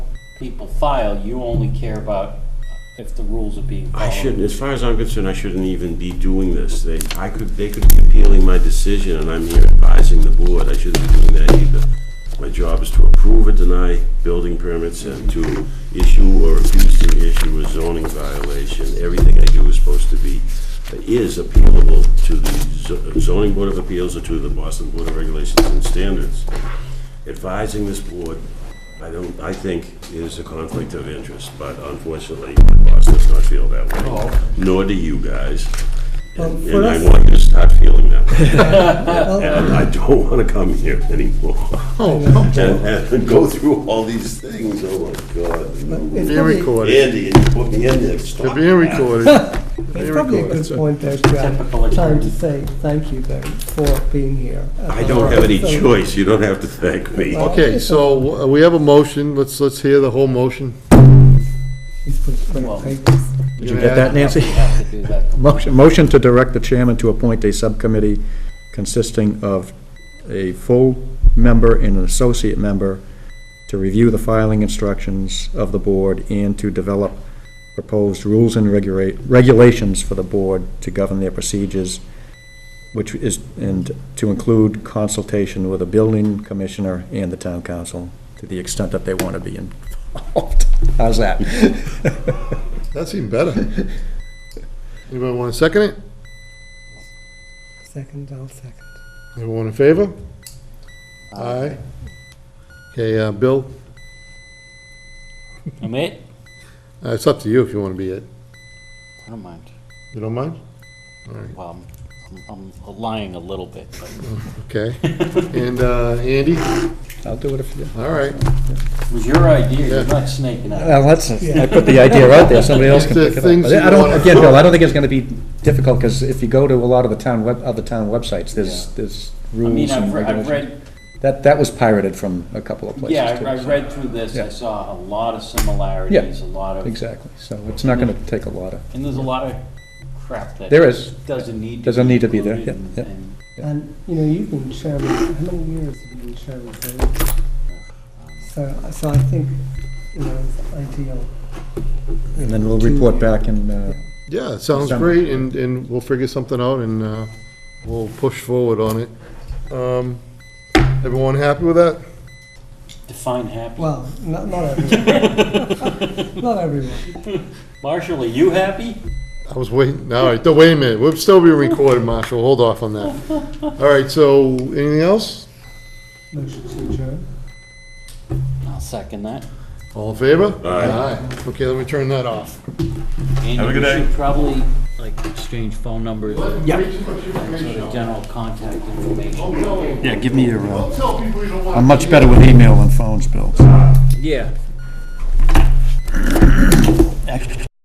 people file, you only care about if the rules are being followed. I shouldn't, as far as I'm concerned, I shouldn't even be doing this. They, I could, they could be appealing my decision, and I'm here advising the board. I shouldn't be doing that either. My job is to approve or deny building permits and to issue or refuse to issue a zoning violation. Everything I do is supposed to be, is appealable to the zo- zoning board of appeals or to the Boston Board of Regulations and Standards. Advising this board, I don't, I think, is a conflict of interest, but unfortunately, my boss does not feel that way, nor do you guys. Well, And for and I us- want you to start feeling that way. And I don't want to come here anymore and and go through all these things, oh my God. It's Being probably- recorded. Andy, you put me in there, stop They're being that. recorded. It's Being probably a recorded. good point, though, to Typical have time to attorney. say thank you, though, for being here. I don't have any So- choice, you don't have to thank me. Well- Okay, so uh, we have a motion, let's, let's hear the whole motion. He's put it on Well- papers. Did you get that, Nancy? We have to do that. Motion, motion to direct the chairman to appoint a subcommittee consisting of a full member and an associate member to review the filing instructions of the board and to develop proposed rules and regulate, regulations for the board to govern their procedures, which is, and to include consultation with the building commissioner and the town council to the extent that they want to be involved. How's that? That's even better. Anybody want to second it? Second, I'll second. Everyone in favor? Aye. Okay, uh, Bill, I'm it? uh, it's up to you if you want to be it. I don't mind. You don't mind? All right, Well, I'm- I'm, I'm lying a little bit, but okay. And uh, Andy? I'll do it if you. All right. it was your idea, Yeah. you're not snaking out. Well, that's, I put the idea out there, somebody else can Just the pick it things up. I you don't, wanna- again, Bill, I don't think it's gonna be difficult, because if you go to a lot of the town, web other town websites, there's, Yeah. there's I mean, rules I've, and re- I've regulations. read, That, that was pirated from a couple of places. yeah, too, I I so. read through this, I Yeah. saw a lot of similarities, a lot of, Exactly, so it's not gonna take a lot of, and there's a lot of crap that. There is. Doesn't need to be. Doesn't need to be there, included yeah, and- yeah. and, Yeah. And, you know, you've been chairman, how many years have you been chairman? David? So, so I think, you know, it's ideal. and then we'll report back and, uh, Yeah, it sounds December. great, and, and we'll figure something out, and uh, we'll push forward on it. Um, Everyone happy with that? Define happy. Well, not, not everyone. Not everyone. Marshall, are you happy? I was waiting, all right, wait a minute, we're still being recorded, Marshall, hold off on that. All right, so, anything else? Motion to adjourn. I'll second that. All in favor? Aye. Okay, let me turn that off. Have a good day. And you should probably, like, exchange phone numbers, and Yeah. sort of general contact information. yeah, give me your, uh, Tell people you don't want I'm much better with email than phones, Bill. Yeah.